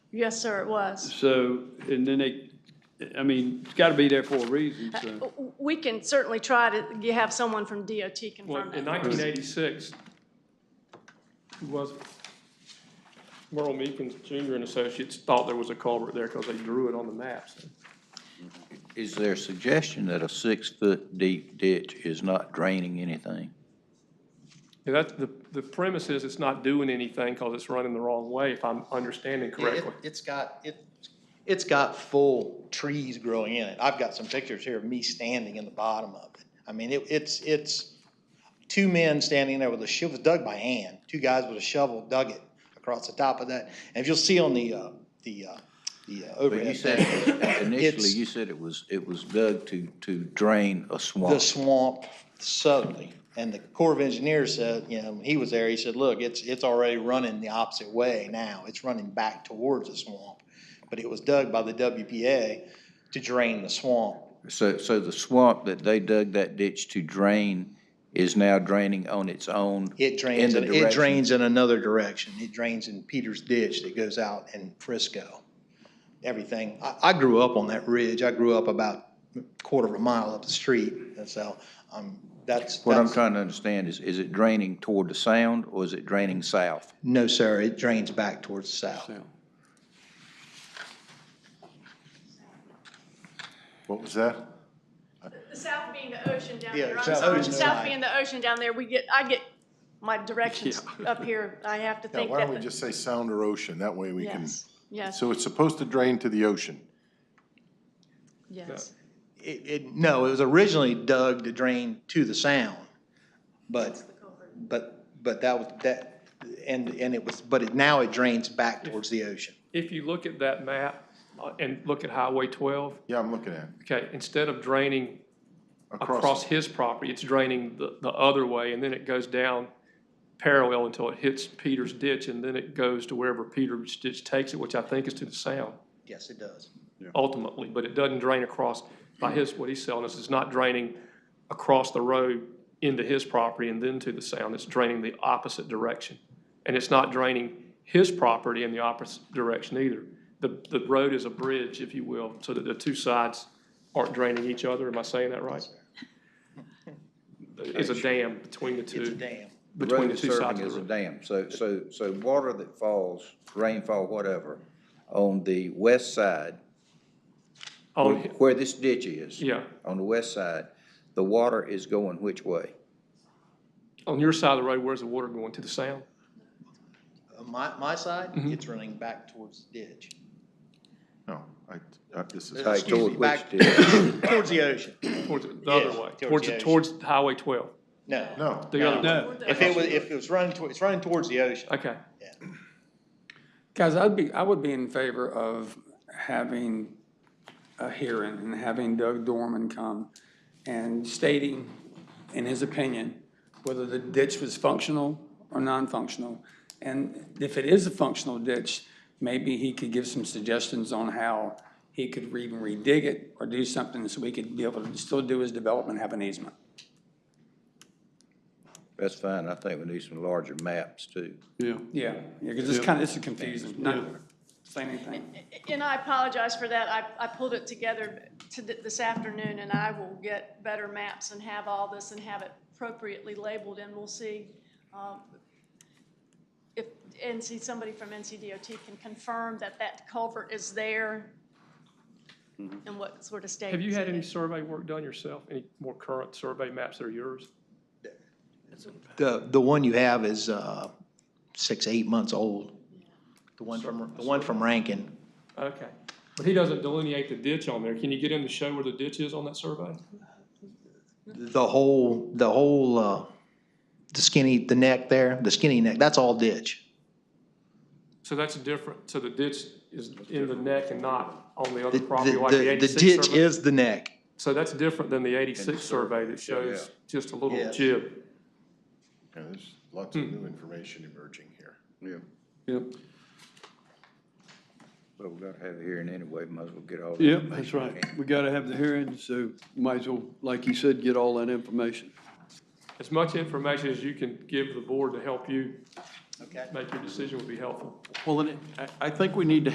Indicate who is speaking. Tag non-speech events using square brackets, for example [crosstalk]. Speaker 1: Yes, sir, it was.
Speaker 2: So, and then they, I mean, it's got to be there for a reason, so.
Speaker 1: W- We can certainly try to g- have someone from DOT
Speaker 3: Well,
Speaker 1: confirm that.
Speaker 3: in nineteen eighty-six, who was it? Merle Meekins Jr. and Associates thought there was a culvert there because they drew it on the maps.
Speaker 4: Is there a suggestion that a six-foot deep ditch is not draining anything?
Speaker 3: And that's, the, the premise is it's not doing anything because it's running the wrong way, if I'm understanding
Speaker 5: Yeah, it-
Speaker 3: correctly.
Speaker 5: It's got, it, it's got full trees growing in it. I've got some pictures here of me standing in the bottom of it. I mean, it, it's, it's two men standing there with a shovel, dug by hand. Two guys with a shovel dug it across the top of that. And if you'll see on the, uh, the, uh, the uh,
Speaker 4: But you
Speaker 5: overhead,
Speaker 4: said, [coughs] initially,
Speaker 5: It's-
Speaker 4: you said it was, it was dug to, to drain a
Speaker 5: the
Speaker 4: swamp.
Speaker 5: swamp southerly. And the Corps of Engineers said, you know, when he was there, he said, look, it's, it's already running the opposite way now. It's running back towards the swamp. But it was dug by the WPA to drain the swamp.
Speaker 4: So, so the swamp that they dug that ditch to drain is now draining on its own?
Speaker 5: It drains,
Speaker 4: In
Speaker 5: in-
Speaker 4: the
Speaker 5: it
Speaker 4: direction.
Speaker 5: drains in another direction. It drains in Peters Ditch that goes out in Frisco. Everything. I, I grew up on that ridge. I grew up about a quarter of a mile up the street. And so, um, that's.
Speaker 4: What I'm
Speaker 5: that's-
Speaker 4: trying to understand is, is it draining toward the sound or is it draining south?
Speaker 5: No, sir, it drains back towards the south.
Speaker 6: What was that?
Speaker 1: The south being the ocean down
Speaker 5: Yeah,
Speaker 1: there, I'm
Speaker 5: south
Speaker 1: sorry,
Speaker 5: is
Speaker 1: the
Speaker 5: the
Speaker 1: south
Speaker 5: line.
Speaker 1: being the ocean down there, we get, I get my directions up here. I have to
Speaker 6: Yeah,
Speaker 1: think
Speaker 6: why don't we
Speaker 1: that the-
Speaker 6: just say sound or ocean? That way we can,
Speaker 1: Yes, yes,
Speaker 6: so it's supposed to drain to the ocean.
Speaker 1: yes.
Speaker 5: It, it, no, it was originally dug to drain to the sound, but, but, but that was, that, and, and it was, but it, now it drains back towards the ocean.
Speaker 3: If you look at that map uh, and look at Highway twelve,
Speaker 6: Yeah, I'm looking at it.
Speaker 3: okay, instead of draining across
Speaker 6: Across,
Speaker 3: his property, it's draining the, the other way, and then it goes down parallel until it hits Peter's ditch, and then it goes to wherever Peter's ditch takes it, which I think is to the sound
Speaker 5: Yes, it does.
Speaker 3: ultimately, but it doesn't drain across, by his, what he's selling us, it's not draining across the road into his property and then to the sound, it's draining the opposite direction. And it's not draining his property in the opposite direction either. The, the road is a bridge, if you will, so that the two sides aren't draining each other, am I saying that right? It's a dam between the
Speaker 5: It's a
Speaker 3: two,
Speaker 5: dam.
Speaker 4: The
Speaker 3: between
Speaker 4: road
Speaker 3: the
Speaker 4: is
Speaker 3: two sides
Speaker 4: serving
Speaker 3: of
Speaker 4: as
Speaker 3: the
Speaker 4: a
Speaker 3: road.
Speaker 4: dam. So, so, so water that falls, rainfall, whatever, on the west side,
Speaker 3: On hi-
Speaker 4: where this ditch is.
Speaker 3: Yeah,
Speaker 4: On the west side, the water is going which way?
Speaker 3: on your side of the road, where's the water going, to the sound?
Speaker 5: Uh, My, my side, it's running back towards the ditch.
Speaker 6: no, I, uh, this is,
Speaker 5: Uh,
Speaker 4: Like
Speaker 5: excuse
Speaker 4: toward
Speaker 5: me,
Speaker 4: which
Speaker 5: back-
Speaker 4: ditch?
Speaker 5: [coughs] Towards the ocean.
Speaker 3: Towards the other
Speaker 5: Yes,
Speaker 3: way,
Speaker 5: towards
Speaker 3: towards,
Speaker 5: the
Speaker 3: the-
Speaker 5: ocean.
Speaker 3: towards Highway twelve,
Speaker 5: No.
Speaker 6: no.
Speaker 3: the other way.
Speaker 5: If it was, if it was running, toward- it's running towards the ocean.
Speaker 3: Okay.
Speaker 7: Guys, I'd be, I would be in favor of having a hearing and having Doug Dorman come and stating, in his opinion, whether the ditch was functional or non-functional. And if it is a functional ditch, maybe he could give some suggestions on how he could even redig it or do something so we could be able to still do his development, have an easement.
Speaker 4: That's fine. I think we need some larger maps too.
Speaker 2: Yeah.
Speaker 7: Yeah, because it's kind of, it's confusing, not saying anything.
Speaker 1: And I apologize for that. I, I pulled it together to th- this afternoon, and I will get better maps and have all this and have it appropriately labeled, and we'll see um, if NC, somebody from NCDOT can confirm that that culvert is there and what sort of state.
Speaker 3: Have you
Speaker 1: it's
Speaker 3: had
Speaker 1: in.
Speaker 3: any survey work done yourself, any more current survey maps that are yours?
Speaker 5: The, the one you have is, uh, six, eight months old. The one from, the one from Rankin.
Speaker 3: Okay, but he doesn't delineate the ditch on there, can you get him to show where the ditch is on that survey?
Speaker 5: The whole, the whole, uh, the skinny, the neck there, the skinny neck, that's all ditch.
Speaker 3: So that's different, so the ditch is in the neck and not on the
Speaker 5: The,
Speaker 3: other property like the
Speaker 5: the, the- the
Speaker 3: eighty-six
Speaker 5: ditch
Speaker 3: survey?
Speaker 5: is the neck.
Speaker 3: So that's different than the eighty-six survey that shows
Speaker 4: yeah.
Speaker 3: just a little
Speaker 5: Yes.
Speaker 3: jib.
Speaker 6: Yeah, There's lots of new information emerging here.
Speaker 4: Yeah.
Speaker 2: Yep,
Speaker 4: But we gotta have a hearing anyway, might as well get all. the
Speaker 2: yep,
Speaker 4: information
Speaker 2: that's
Speaker 4: we
Speaker 2: right.
Speaker 4: can.
Speaker 2: We got to have the hearing, so you might as well, like you said, get all that information.
Speaker 3: As much information as you can give the board to help you
Speaker 5: Okay.
Speaker 3: make your decision would be helpful.
Speaker 2: Well, then, I, I think we need to